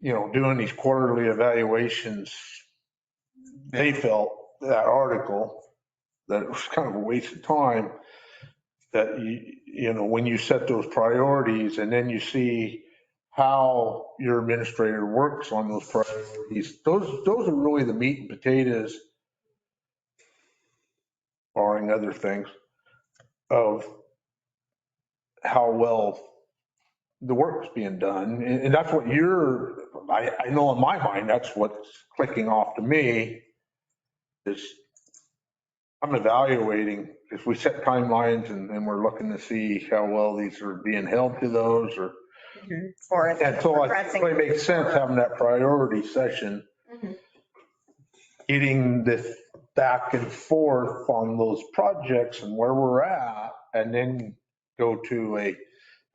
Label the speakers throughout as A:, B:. A: you know, doing these quarterly evaluations, they felt that article, that it was kind of a waste of time, that you, you know, when you set those priorities and then you see how your administrator works on those priorities, those, those are really the meat and potatoes, barring other things, of how well the work's being done. And, and that's what you're, I, I know in my mind, that's what's clicking off to me is I'm evaluating, if we set timelines and, and we're looking to see how well these are being held to those or,
B: Or if
A: and
B: it's
A: so I think it really
B: progressing.
A: makes sense having that priority session.
B: Mhm.
A: Getting this back and forth on those projects and where we're at and then go to a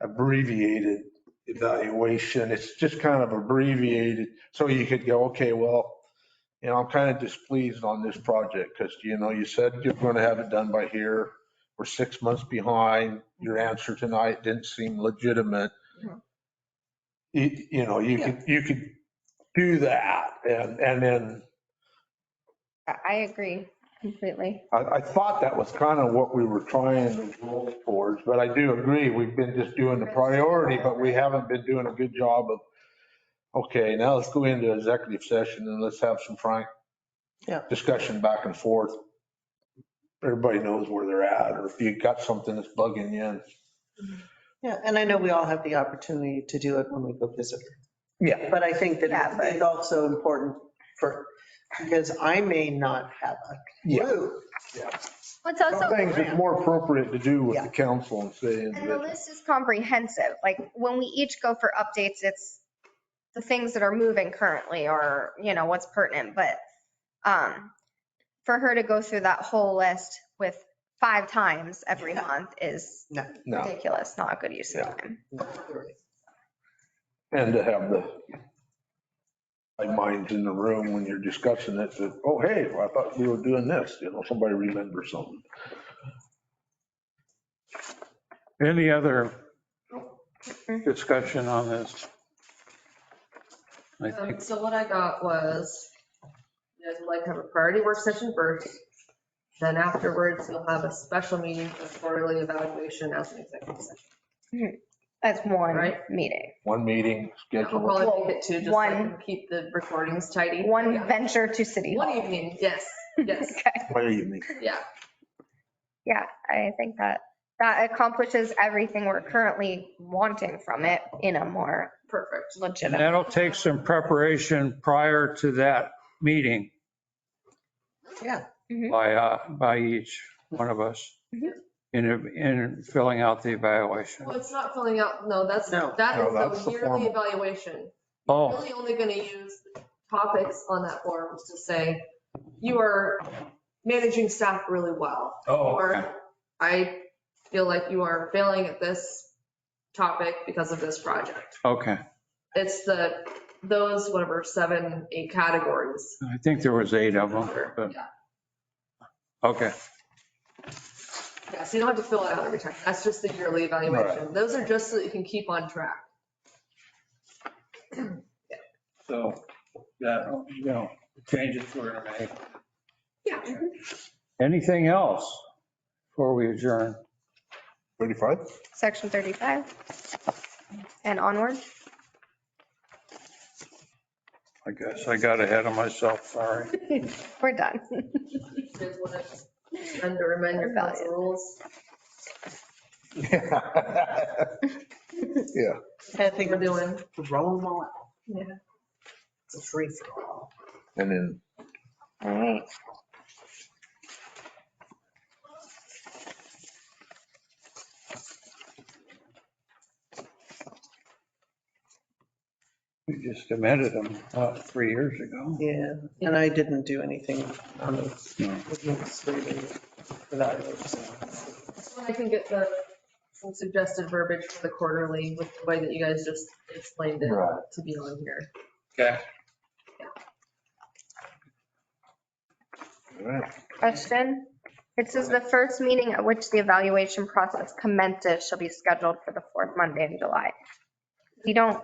A: abbreviated evaluation. It's just kind of abbreviated. So you could go, okay, well, you know, I'm kind of displeased on this project because, you know, you said you're going to have it done by here. We're six months behind. Your answer tonight didn't seem legitimate.
B: Mhm.
A: You, you know, you could, you could do that and, and then
C: I I agree completely.
A: I, I thought that was kind of what we were trying to roll towards, but I do agree, we've been just doing the priority, but we haven't been doing a good job of, okay, now let's go into executive session and let's have some frank
B: Yeah.
A: discussion back and forth. Everybody knows where they're at, or if you got something that's bugging you.
B: Yeah, and I know we all have the opportunity to do it when we go visit.
A: Yeah.
B: But I think
C: Yeah,
B: that
C: but-
B: it's also important for, because I may not have a
A: Yeah,
B: clue.
C: It's
A: some
C: also,
A: things it's more appropriate to do with the council and saying
C: and the
A: that,
C: list is comprehensive. Like when we each go for updates, it's the things that are moving currently or, you know, what's pertinent. But um, for her to go through that whole list with five times every
B: Yeah.
C: month is
A: no,
C: ridiculous, not a good use of
A: Yeah.
C: time.
A: and to have the like minds in the room when you're discussing it, that, oh, hey, well, I thought we were doing this, you know, somebody remembers something.
D: Any other discussion on this? I
E: Um,
D: think,
E: So what I got was, you guys would like to have a priority work session first. Then afterwards, you'll have a special meeting for quarterly evaluation as an executive session,
C: That's one
E: Right.
C: meeting,
A: One meeting
E: We'll
A: scheduled,
E: probably make it two, just
C: One.
E: like keep the recordings tidy.
C: one
E: Yeah.
C: venture to city.
E: One
C: Hall.
E: evening, yes, yes,
C: Okay.
A: one evening.
E: yeah.
C: Yeah, I think that, that accomplishes everything we're currently wanting from it in a more
E: Perfect.
D: and
C: legitimate.
D: that'll take some preparation prior to that meeting
B: Yeah,
D: by, uh, by each one of us
E: Mm-hmm.
C: Mhm.
D: in, in filling out the evaluation.
E: Well, it's not filling out, no, that's,
B: No.
E: that
A: No, that's
E: is
A: the
E: the yearly
A: form.
E: evaluation.
D: Oh,
E: Really only gonna use topics on that form to say, you are managing staff really well.
D: oh, okay.
E: Or I feel like you are failing at this topic because of this project.
D: okay.
E: It's the, those, whatever, seven, eight categories.
D: I think there was eight of them,
E: Yeah,
D: but, okay.
E: Yeah, so you don't have to fill it out every time. That's just the yearly evaluation. Those are just so that you can keep on track.
D: So, that, you know, changes we're gonna make.
E: Yeah. mm-hmm.
D: Anything else before we adjourn?
A: 35?
C: Section 35 and onward.
D: I guess I got ahead of myself, sorry.
C: We're done.
E: You guys wanna Spend or amend your council rules.
A: Yeah.
E: Thing
B: I think
E: we're doing.
B: throw them all out.
E: Yeah.
B: It's a free for all.
A: And then
C: All right.
D: We just amended them about three years ago.
B: Yeah, and I didn't do anything on
D: No.
B: the. evaluation.
E: So I can get the some suggested verbiage for the quarterly with the way that you guys just explained it
A: Right.
E: to be on here.
D: Okay.
A: all right.
C: Question. It says the first meeting at which the evaluation process commences shall be scheduled for the fourth Monday in July. We don't